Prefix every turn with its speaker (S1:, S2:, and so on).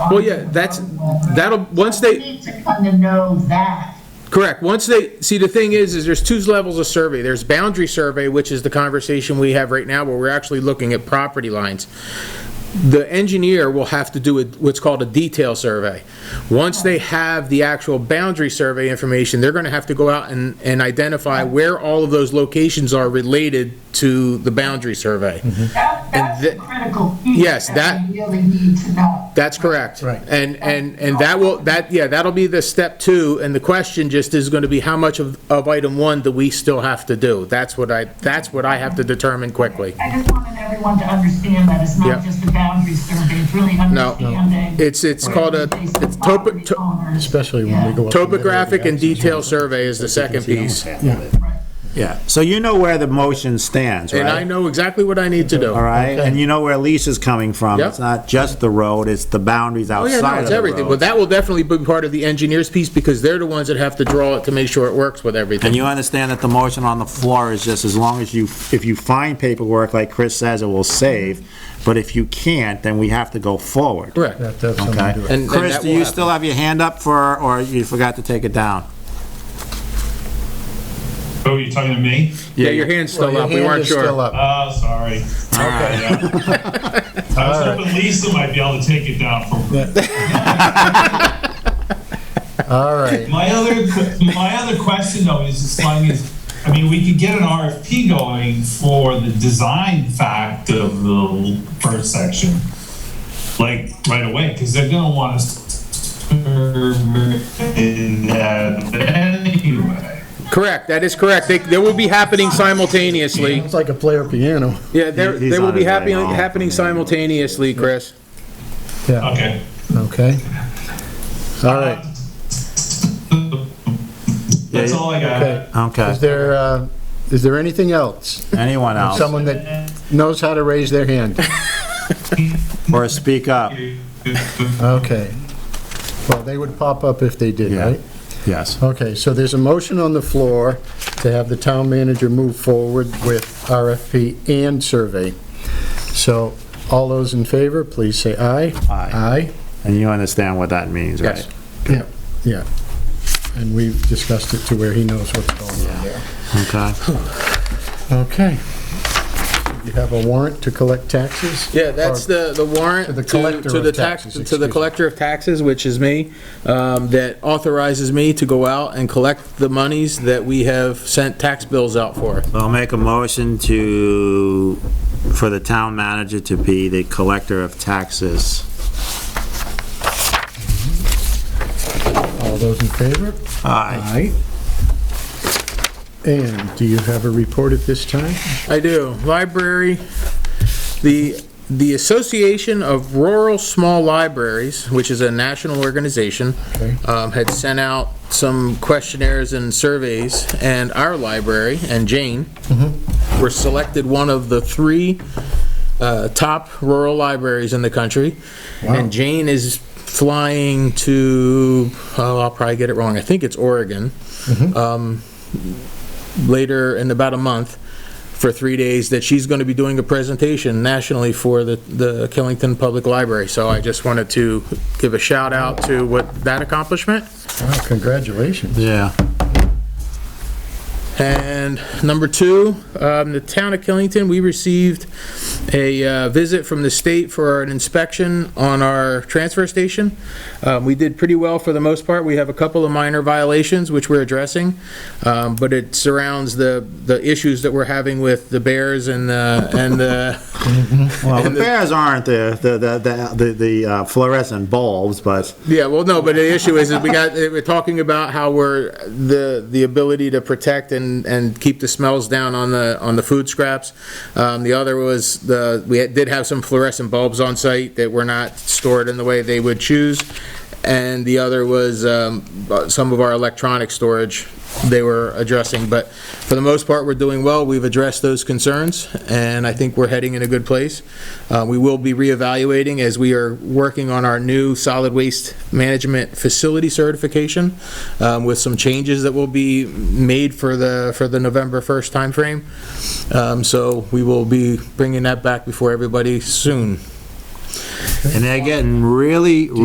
S1: Well, yeah, that's, that'll, once
S2: We
S1: they,
S2: need to kind of know that.
S1: correct, once they, see, the thing is, is there's two levels of survey. There's boundary survey, which is the conversation we have right now, where we're actually looking at property lines. The engineer will have to do a- what's called a detail survey. Once they have the actual boundary survey information, they're gonna have to go out and, and identify where all of those locations are related to the boundary survey.
S2: That, that's
S1: the-
S2: the critical piece.
S1: Yes, that-
S2: We really need to know.
S1: That's correct.
S3: Right.
S1: And, and, and that will, that, yeah, that'll be the step two, and the question just is gonna be how much of, of item one do we still have to do? That's what I, that's what I have to determine quickly.
S2: I just wanted everyone to understand that it's
S1: Yeah.
S2: not just a boundary survey, it's really
S1: No,
S2: understanding.
S1: it's, it's called a, it's topo,
S2: Property
S1: to-
S2: owners.
S3: Especially when we go up.
S1: topographic and detail survey is the second piece.
S4: Yeah, so you know where the motion stands,
S1: And I
S4: right?
S1: know exactly what I need to do.
S4: All right, and you know where Lisa's coming from.
S1: Yep.
S4: It's not just the road, it's the boundaries
S1: Oh, yeah, no,
S4: outside of
S1: it's
S4: the
S1: everything. Well,
S4: road.
S1: that will definitely be part of the engineer's piece, because they're the ones that have to draw it to make sure it works with
S4: And
S1: everything.
S4: you understand that the motion on the floor is just as long as you, if you find paperwork, like Chris says, it will save, but if you can't, then we have to go forward.
S1: Correct.
S3: That does something to do
S4: Okay?
S1: And- and
S4: Chris,
S1: that
S4: do
S1: will
S4: you
S1: happen.
S4: still have your hand up for, or you forgot to take it down?
S5: Oh, you're talking to me?
S1: Yeah, your hand's still up, we weren't sure.
S5: Oh, sorry. Okay. yeah. I was hoping Lisa might be able to take it down for me.
S3: All right,
S5: My other, my other question though is, as long as, I mean, we could get an RFP going for the design fact of the first section, like right away, because they're gonna want us to in that anyway.
S1: Correct, that is correct. They, they will be happening simultaneously.
S3: it's like a player piano.
S1: Yeah, they're-
S4: He's
S1: they will
S4: on
S1: be
S4: his way
S1: happy,
S4: home.
S1: happening simultaneously, Chris.
S3: Yeah,
S5: Okay.
S3: okay. All right,
S5: That's all I
S3: okay.
S5: got.
S4: Okay,
S3: Is there, uh, is there anything else?
S4: anyone else?
S3: Someone that knows how to raise their hand?
S4: Or speak up?
S3: Okay. Well, they would pop up if they did,
S4: Yeah.
S3: right?
S4: Yes.
S3: Okay, so there's a motion on the floor to have the town manager move forward with RFP and survey. So all those in favor, please say aye.
S4: Aye.
S3: Aye.
S4: And you understand what that means, right?
S1: Yes.
S3: Yeah, yeah. And we've discussed it to where he knows what's going on there.
S4: Okay.
S3: Okay. You have a warrant to collect taxes?
S1: Yeah, that's
S3: Or-
S1: the, the warrant
S3: To
S1: to,
S3: the collector
S1: to the
S3: of
S1: tax,
S3: taxes,
S1: to the
S3: excuse me.
S1: collector of taxes, which is me, um, that authorizes me to go out and collect the monies that we have sent tax bills out for.
S4: I'll make a motion to, for the town manager to be the collector of taxes.
S3: All those in favor?
S4: Aye.
S3: Aye. And do you have a report at this time?
S1: I do. Library, the, the Association of Rural Small Libraries, which is a national organization,
S3: Okay.
S1: um, had sent out some questionnaires and surveys, and our library and Jane were selected one of the three uh, top rural libraries in the country. And Jane is flying to, oh, I'll probably get it wrong, I think it's Oregon Um, later in about a month for three days that she's going to be doing a presentation nationally for the, the Killington Public Library. So I just wanted to give a shout out to what, that accomplishment.
S3: Wow, congratulations.
S4: Yeah.
S1: And number two, um, the town of Killington, we received a, uh, visit from the state for an inspection on our transfer station. Um, we did pretty well for the most part. We have a couple of minor violations which we're addressing. Um, but it surrounds the, the issues that we're having with the bears and the, and the,
S4: Well, the bears aren't the, the, the- the, the uh, fluorescent bulbs, but
S1: yeah, well, no, but the issue is, is we got, eh, we're talking about how we're, the, the ability to protect and, and keep the smells down on the, on the food scraps. Um, the other was the, we did have some fluorescent bulbs on site that were not stored in the way they would choose. And the other was, um, some of our electronic storage they were addressing. But for the most part, we're doing well. We've addressed those concerns, and I think we're heading in a good place. Uh, we will be reevaluating as we are working on our new solid waste management facility certification um, with some changes that will be made for the, for the November 1st timeframe. Um, so we will be bringing that back before everybody soon.
S4: and they're getting really,